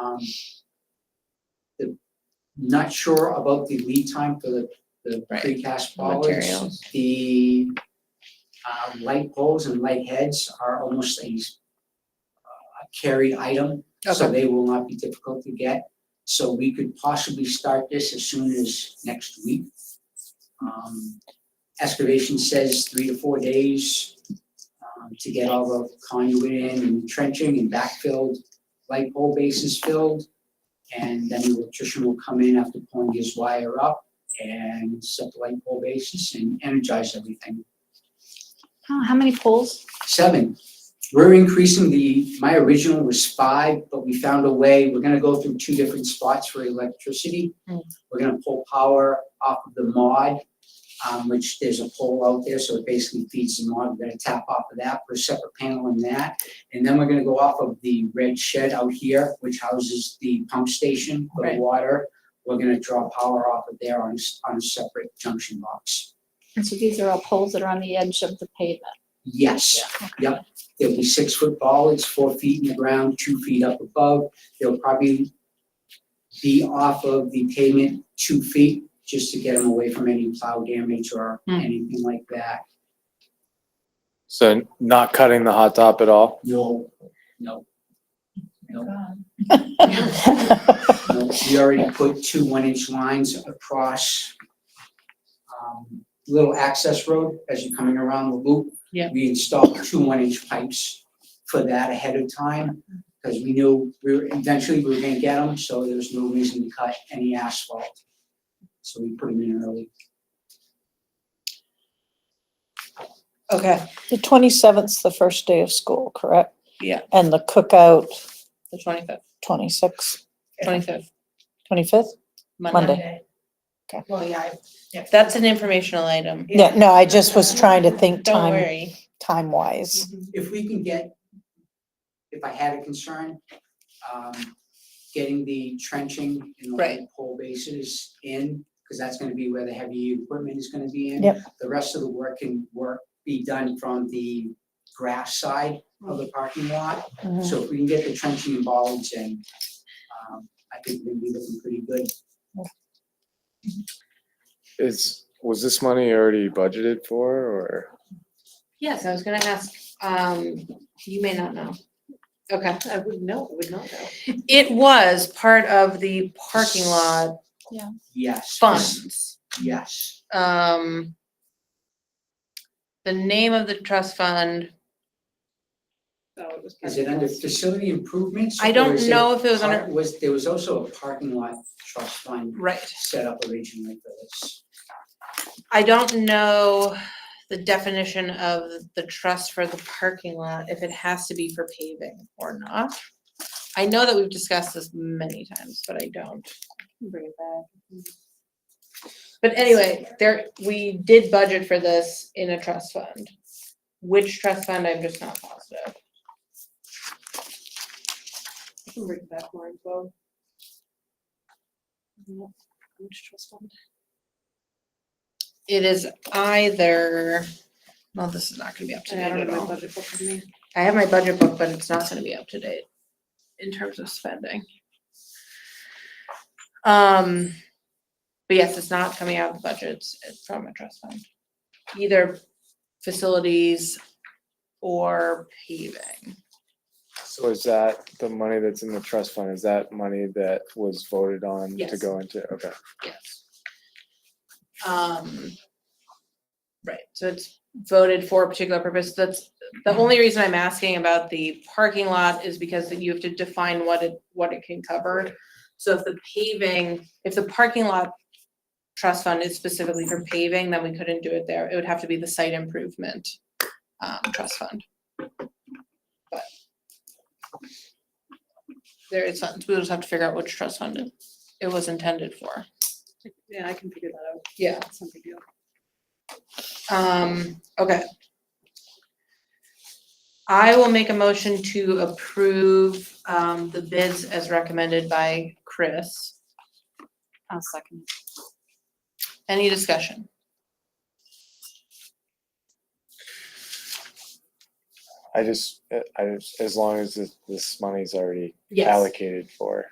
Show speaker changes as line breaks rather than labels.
um, the- not sure about the lead time for the, the
Right,
precast bollards.
materials.
The, uh, light poles and light heads are almost a s- a carried item, so
Okay.
they will not be difficult to get. So we could possibly start this as soon as next week. Um, excavation says three to four days um, to get all the conduit in and trenching and backfilled, light pole bases filled. And then the electrician will come in after pulling his wire up and set the light pole bases and energize everything.
How, how many poles?
Seven, we're increasing the, my original was five, but we found a way, we're gonna go through two different spots for electricity.
Mm.
We're gonna pull power off of the mod, um, which there's a pole out there, so it basically feeds the mod. We're gonna tap off of that, put a separate panel in that. And then we're gonna go off of the red shed out here, which houses the pump station for the
Right.
water. We're gonna draw power off of there on, s- on a separate junction box.
And so these are all poles that are on the edge of the pavement.
Yes. There'll be six foot bollards, four feet in the ground, two feet up above. They'll probably be off of the pavement two feet, just to get them away from any plow damage or
Hmm.
anything like that.
So not cutting the hot top at all?
No, no, no,
um, Okay.
no. We already put two one inch lines across um, little access road as you're coming around the loop.
Yeah.
We installed two one inch pipes for that ahead of time, because we knew we were, eventually we were gonna get them, so there was no reason to cut any asphalt. So we put them in early.
Okay.
The twenty-seventh's the first day of school, correct?
Yeah.
And the cookout,
The twenty-fifth,
twenty-sixth,
twenty-fifth,
twenty-fifth? Monday. Okay.
Well, yeah. I-
That's an informational item.
Yeah, no, I just was trying to think
Don't
time,
worry.
time-wise.
If we can get, if I had a concern, um, getting the trenching and the
Right.
light pole bases in, because that's gonna be where the heavy equipment is gonna be in.
Yep.
The rest of the work can work, be done from the grass side of the parking lot.
Mm-hmm.
Mhm.
So if we can get the trenching and bollards in, um, I think we'll be looking pretty good.
Is, was this money already budgeted for or?
Yes, I was gonna ask, um, you may not know. Okay, I would know, would not know.
It was part of the parking lot
Yes.
funds.
Yes.
Um, the name of the trust fund,
Oh, it was
Is it under facility improvements?
I
or
don't
is it
know if it was
part-
under,
Was, there was also a parking lot trust fund
right.
set up originally for this.
I don't know the definition of the trust for the parking lot, if it has to be for paving or not. I know that we've discussed this many times, but I don't. Bring it back. But anyway, there, we did budget for this in a trust fund. Which trust fund, I'm just not positive.
I can bring back more info.
Which trust fund? It is either, well, this is not gonna be up to
I
date
don't
at
have my
all.
budget book with me.
I have my budget book, but it's not gonna be up to date in terms of spending. Um, but yes, it's not coming out of the budgets it's from a trust fund, either facilities or paving.
So is that the money that's in the trust fund? Is that money that was voted on to
Yes.
go into? Okay.
Yes. Um. Right, so it's voted for a particular purpose. That's, the only reason I'm asking about the parking lot is because that you have to define what it, what it can cover. So if the paving, if the parking lot trust fund is specifically for paving, then we couldn't do it there. It would have to be the site improvement um trust fund. But there is funds. We'll just have to figure out which trust fund it- it was intended for.
Yeah, I can figure that out.
Yeah.
That's no big deal.
Um, okay. I will make a motion to approve, um, the bids as recommended by Chris.
I'll second.
Any discussion?
I just, I, just- as long as this, this money's already
Yes.
allocated for.